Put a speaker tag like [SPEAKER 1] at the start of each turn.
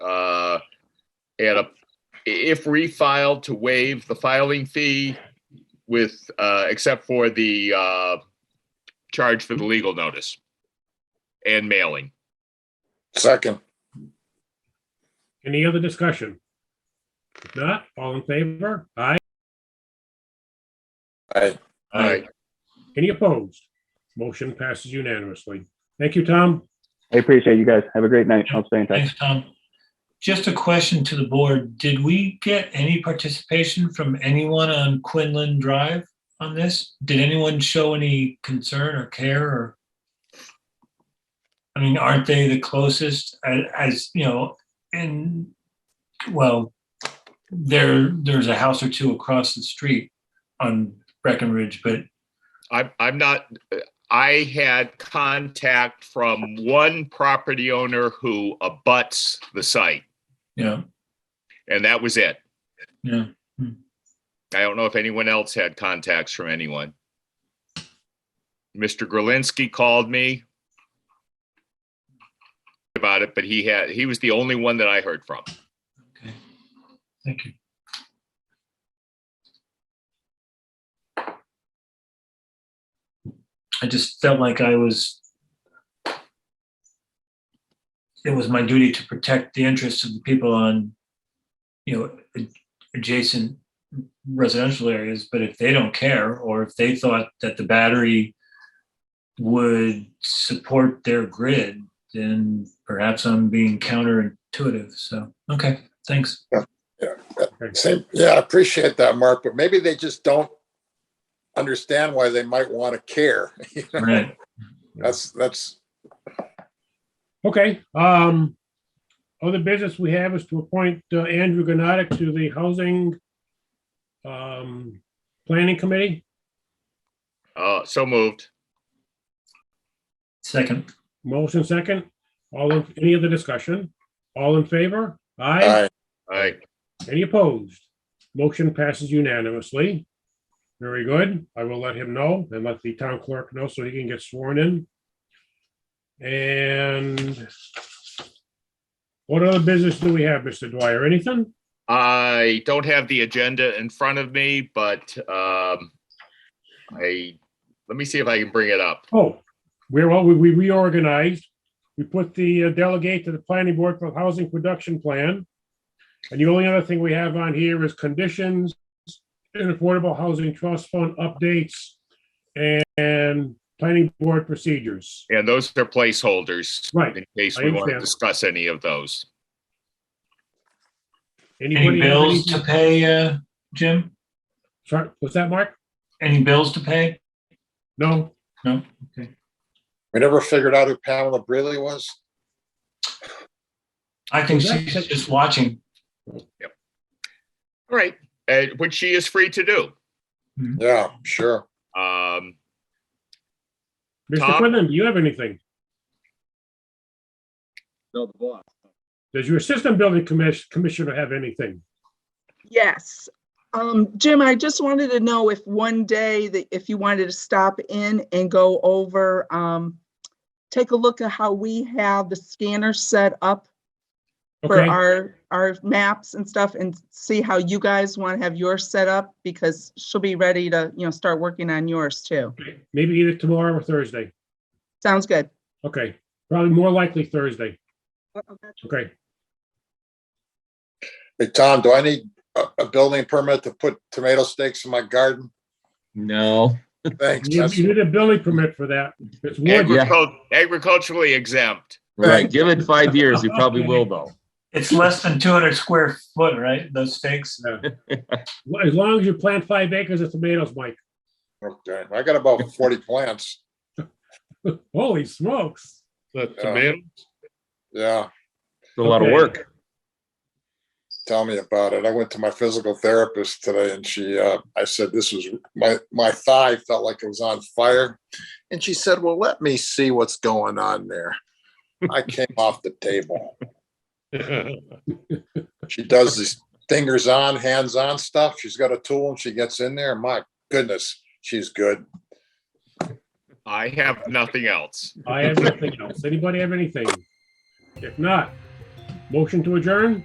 [SPEAKER 1] uh, at a, if refiled, to waive the filing fee with, uh, except for the, uh, charge for the legal notice and mailing.
[SPEAKER 2] Second.
[SPEAKER 3] Any other discussion? If not, all in favor? Aye.
[SPEAKER 2] Aye.
[SPEAKER 1] Aye.
[SPEAKER 3] Any opposed? Motion passes unanimously. Thank you, Tom.
[SPEAKER 4] I appreciate you guys. Have a great night. I'll stay in touch.
[SPEAKER 5] Thanks, Tom. um, Just a question to the board. Did we get any participation from anyone on Quinlan Drive on this? Did anyone show any concern or care or? I mean, aren't they the closest as, as, you know, and, well, there, there's a house or two across the street on Breckenridge, but
[SPEAKER 1] I'm, I'm not, I had contact from one property owner who abuts the site,
[SPEAKER 5] yeah,
[SPEAKER 1] and that was it.
[SPEAKER 5] yeah.
[SPEAKER 1] I don't know if anyone else had contacts from anyone. Mr. Grelinski called me about it, but he had, he was the only one that I heard from.
[SPEAKER 5] Okay. Thank you. I just felt like I was. It was my duty to protect the interests of the people on, you know, ad- adjacent residential areas, but if they don't care, or if they thought that the battery would support their grid, then perhaps I'm being counterintuitive, so, okay. Thanks.
[SPEAKER 2] Same, yeah, I appreciate that, Mark, but maybe they just don't understand why they might want to care. You know,
[SPEAKER 5] Right.
[SPEAKER 2] That's, that's,
[SPEAKER 3] Okay, um, other business we have is to appoint uh, Andrew Gnotic to the Housing um, Planning Committee.
[SPEAKER 1] Uh, so moved.
[SPEAKER 5] Second.
[SPEAKER 3] Motion second. All, in- any other discussion? All in favor? Aye.
[SPEAKER 2] aye,
[SPEAKER 1] All right.
[SPEAKER 3] Any opposed? Motion passes unanimously. Very good. I will let him know and let the town clerk know so he can get sworn in. And what other business do we have, Mr. Dwyer? Anything?
[SPEAKER 1] I don't have the agenda in front of me, but, um, I, let me see if I can bring it up.
[SPEAKER 3] Oh, we're, well, we- we reorganized. We put the uh, delegate to the planning board for the housing production plan. And the only other thing we have on here is conditions and affordable housing trust fund updates and planning board procedures.
[SPEAKER 1] And those are placeholders
[SPEAKER 3] Right.
[SPEAKER 1] in case
[SPEAKER 3] I
[SPEAKER 1] we want to
[SPEAKER 3] understand.
[SPEAKER 1] discuss any of those.
[SPEAKER 3] Anybody
[SPEAKER 5] Any
[SPEAKER 3] have
[SPEAKER 5] bills to
[SPEAKER 3] anything-
[SPEAKER 5] pay, uh, Jim?
[SPEAKER 3] Sorry, was that Mark?
[SPEAKER 5] Any bills to pay?
[SPEAKER 3] No,
[SPEAKER 5] No?
[SPEAKER 2] we never figured out who Pamela Breely was.
[SPEAKER 5] I think she's just watching.
[SPEAKER 1] All right, uh, which she is free to do.
[SPEAKER 2] Yeah, sure.
[SPEAKER 1] Um,
[SPEAKER 3] Mr.
[SPEAKER 1] Tom?
[SPEAKER 3] Quinlan, do you have anything?
[SPEAKER 6] No, the boss.
[SPEAKER 3] Does your system building commis- commissioner have anything?
[SPEAKER 7] Yes. Um, Jim, I just wanted to know if one day that if you wanted to stop in and go over, um, take a look at how we have the scanner set up for
[SPEAKER 3] Okay,
[SPEAKER 7] our, our maps and stuff and see how you guys want to have yours set up because she'll be ready to, you know, start working on yours too.
[SPEAKER 3] maybe either tomorrow or Thursday.
[SPEAKER 7] Sounds good.
[SPEAKER 3] Okay, probably more likely Thursday. Okay,
[SPEAKER 2] Hey, Tom, do I need a, a building permit to put tomato stakes in my garden?
[SPEAKER 6] No.
[SPEAKER 2] Thanks.
[SPEAKER 3] you
[SPEAKER 2] that's-
[SPEAKER 3] you need a building permit for that. It's wood.
[SPEAKER 6] Yeah.
[SPEAKER 1] agricul- agriculturally exempt.
[SPEAKER 6] Right. Give it five years. You probably will though.
[SPEAKER 5] It's less than two hundred square foot, right? Those stakes?
[SPEAKER 3] As long as you plant five acres of tomatoes, Mike.
[SPEAKER 2] Okay, I got about forty plants.
[SPEAKER 3] Holy smokes.
[SPEAKER 2] tomato? Yeah,
[SPEAKER 6] It's a lot of
[SPEAKER 3] Okay.
[SPEAKER 6] work.
[SPEAKER 2] tell me about it. I went to my physical therapist today and she, uh, I said, this was, my, my thigh felt like it was on fire. And she said, well, let me see what's going on there. I came off the table. She does these fingers on, hands on stuff. She's got a tool and she gets in there. My goodness, she's good.
[SPEAKER 1] I have nothing else.
[SPEAKER 3] I have nothing else. Anybody have anything? If not, motion to adjourn?